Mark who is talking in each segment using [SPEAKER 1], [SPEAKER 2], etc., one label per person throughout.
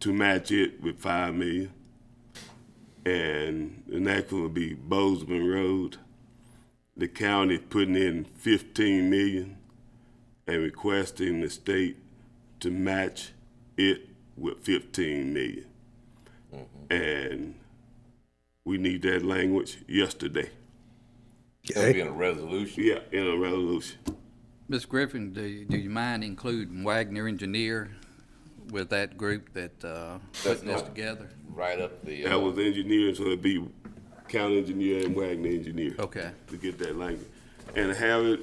[SPEAKER 1] to match it with five million. And the next one would be Bozeman Road. The county putting in fifteen million and requesting the state to match it with fifteen million. And we need that language yesterday.
[SPEAKER 2] It'll be in a resolution.
[SPEAKER 1] Yeah, in a resolution.
[SPEAKER 3] Ms. Griffin, do you, do you mind including Wagner Engineer with that group that, uh, putting this
[SPEAKER 2] not-
[SPEAKER 3] together?
[SPEAKER 2] Right up the,
[SPEAKER 1] That
[SPEAKER 2] uh,
[SPEAKER 1] was engineering, so it'd be county engineer and Wagner engineer.
[SPEAKER 3] Okay.
[SPEAKER 1] To get that language. And have it,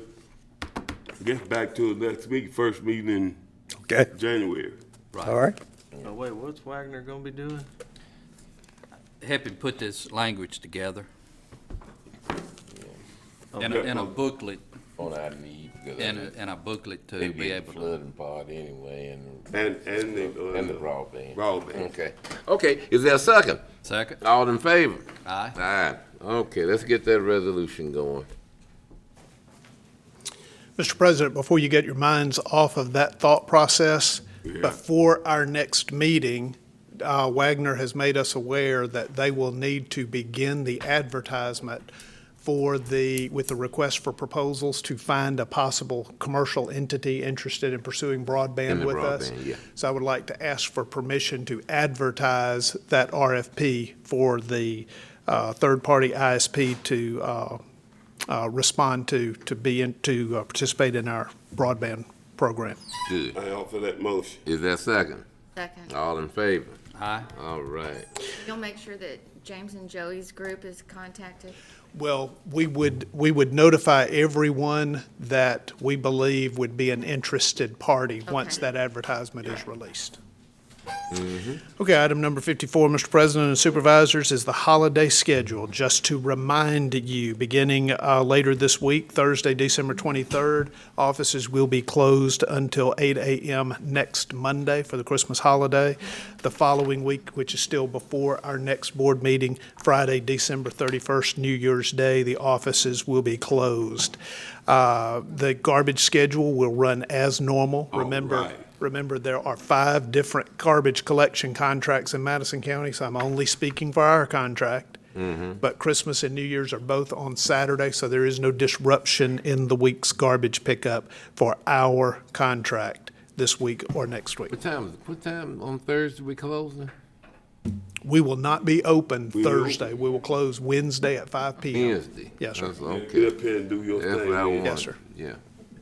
[SPEAKER 1] I guess back to next week, first meeting in
[SPEAKER 4] Okay,
[SPEAKER 1] January.
[SPEAKER 4] all right.
[SPEAKER 5] Oh, wait, what's Wagner gonna be doing?
[SPEAKER 3] Helping put this language together. And, a-
[SPEAKER 1] Okay.
[SPEAKER 3] and a booklet,
[SPEAKER 2] on our need, because
[SPEAKER 3] and a, and a booklet
[SPEAKER 2] they be
[SPEAKER 3] to be
[SPEAKER 2] in the
[SPEAKER 3] able to.
[SPEAKER 2] flooding part anyway, and,
[SPEAKER 1] And, and the. uh,
[SPEAKER 2] and the broadband.
[SPEAKER 1] Broadband.
[SPEAKER 2] Okay, okay, is there a second?
[SPEAKER 3] Second,
[SPEAKER 2] All in favor?
[SPEAKER 3] aye.
[SPEAKER 2] Aye, okay, let's get that resolution going.
[SPEAKER 6] Mr. President, before you get your minds off of that thought process, before our next meeting, uh, Wagner has made us aware that they will need to begin the advertisement for the, with the request for proposals to find a possible commercial entity interested in pursuing
[SPEAKER 2] In
[SPEAKER 6] broadband
[SPEAKER 2] the
[SPEAKER 6] with us.
[SPEAKER 2] broadband, yeah.
[SPEAKER 6] So I would like to ask for permission to advertise that RFP for the uh, third-party ISP to uh, uh, respond to, to be in, to uh, participate in our broadband program.
[SPEAKER 2] Good,
[SPEAKER 1] I offer that motion.
[SPEAKER 2] is there a second?
[SPEAKER 7] Second.
[SPEAKER 2] All in favor?
[SPEAKER 3] Aye.
[SPEAKER 2] All right,
[SPEAKER 7] You'll make sure that James and Joey's group is contacted?
[SPEAKER 6] Well, we would, we would notify everyone that we believe would be an interested party once
[SPEAKER 7] Okay.
[SPEAKER 6] that advertisement is released. Okay, item number 54, Mr. President and Supervisors, is the holiday schedule. Just to remind you, beginning uh, later this week, Thursday, December 23rd, offices will be closed until 8 a.m. next Monday for the Christmas holiday. The following week, which is still before our next board meeting, Friday, December 31st, New Year's Day, the offices will be closed. Uh, The garbage schedule will run as normal. Remember,
[SPEAKER 1] right.
[SPEAKER 6] Remember, there are five different garbage collection contracts in Madison County, so I'm only speaking for our contract. But Christmas and New Year's are both on Saturday, so there is no disruption in the week's garbage pickup for our contract this week or next week.
[SPEAKER 2] what time, is what time on Thursday we closing?
[SPEAKER 6] We will not be open
[SPEAKER 1] will-
[SPEAKER 6] Thursday. We will close Wednesday at five PM.
[SPEAKER 2] Wednesday?
[SPEAKER 6] Yes, sir.
[SPEAKER 2] That's Okay,
[SPEAKER 1] Get up here and do your
[SPEAKER 2] that's what I
[SPEAKER 1] thing.
[SPEAKER 2] want.
[SPEAKER 1] man.
[SPEAKER 6] Yes, sir.
[SPEAKER 2] Yeah.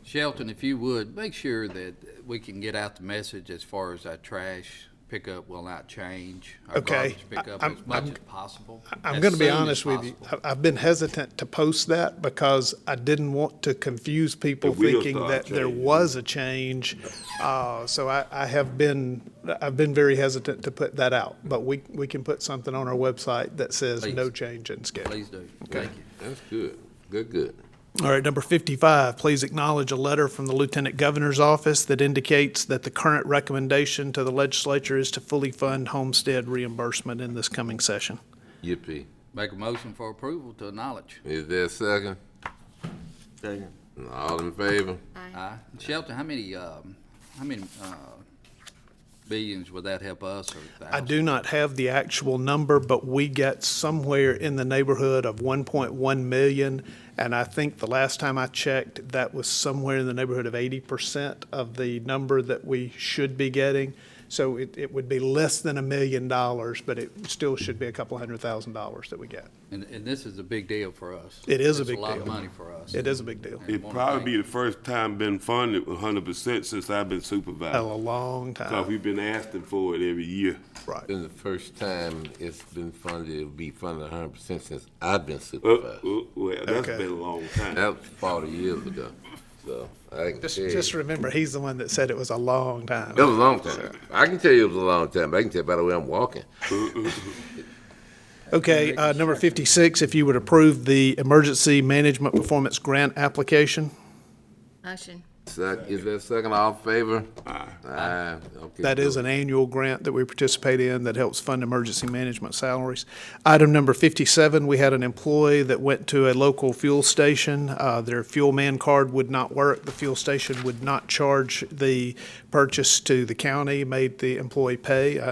[SPEAKER 3] Shelton, if you would, make sure that we can get out the message as far as our trash pickup will not change. Our
[SPEAKER 6] Okay.
[SPEAKER 3] garbage
[SPEAKER 6] I-
[SPEAKER 3] pickup
[SPEAKER 6] I'm-
[SPEAKER 3] as much
[SPEAKER 6] I'm-
[SPEAKER 3] as possible.
[SPEAKER 6] I'm
[SPEAKER 3] as
[SPEAKER 6] going to be
[SPEAKER 3] soon as
[SPEAKER 6] honest with you.
[SPEAKER 3] possible.
[SPEAKER 6] I- I've been hesitant to post that because I didn't want to confuse people
[SPEAKER 1] The wheels
[SPEAKER 6] thinking
[SPEAKER 1] start
[SPEAKER 6] that there
[SPEAKER 1] changing.
[SPEAKER 6] was a change. Uh, So I, I have been, I've been very hesitant to put that out. But we, we can put something on our website that says no
[SPEAKER 3] Please.
[SPEAKER 6] change in schedule.
[SPEAKER 3] Please do. Thank you.
[SPEAKER 2] That's good, good, good.
[SPEAKER 6] All right, number 55, please acknowledge a letter from the Lieutenant Governor's Office that indicates that the current recommendation to the legislature is to fully fund homestead reimbursement in this coming session.
[SPEAKER 2] Yippee.
[SPEAKER 3] Make a motion for approval to acknowledge.
[SPEAKER 2] Is there a second?
[SPEAKER 5] Second.
[SPEAKER 2] All in favor?
[SPEAKER 3] Aye. Shelton, how many, um, how many, uh, billions would that help us or
[SPEAKER 6] I
[SPEAKER 3] thousands?
[SPEAKER 6] do not have the actual number, but we get somewhere in the neighborhood of 1.1 million. And I think the last time I checked, that was somewhere in the neighborhood of 80% of the number that we should be getting. So it, it would be less than a million dollars, but it still should be a couple hundred thousand dollars that we get.
[SPEAKER 3] And, and this is a big deal for us.
[SPEAKER 6] It is a big
[SPEAKER 3] It's a lot of
[SPEAKER 6] deal.
[SPEAKER 3] money for us.
[SPEAKER 6] It is a big deal.
[SPEAKER 1] It probably be the first time been funded one hundred percent since I've been
[SPEAKER 6] A
[SPEAKER 1] supervisor.
[SPEAKER 6] long
[SPEAKER 1] Cause
[SPEAKER 6] time,
[SPEAKER 1] we've been asking for it every year.
[SPEAKER 6] right.
[SPEAKER 2] Been the first time it's been funded, it'll be funded hundred percent since I've been
[SPEAKER 1] Uh,
[SPEAKER 2] supervisor.
[SPEAKER 1] uh, well, that's
[SPEAKER 6] Okay.
[SPEAKER 1] been a long time.
[SPEAKER 2] That was forty years ago, so I can
[SPEAKER 6] Just,
[SPEAKER 2] tell you.
[SPEAKER 6] just remember, he's the one that said it was a long time.
[SPEAKER 2] It was a long time. I can tell you it was a long time, but I can tell by the way I'm walking.
[SPEAKER 6] Okay, uh, number 56, if you would approve the Emergency Management Performance Grant application.
[SPEAKER 7] Motion.
[SPEAKER 2] Sec- Is that second all in favor? Aye. Okay,
[SPEAKER 6] That is
[SPEAKER 2] so
[SPEAKER 6] an annual grant that we participate in that helps fund emergency management salaries. Item number 57, we had an employee that went to a local fuel station. Uh, Their fuel man card would not work. The fuel station would not charge the purchase to the county, made the employee pay. Uh,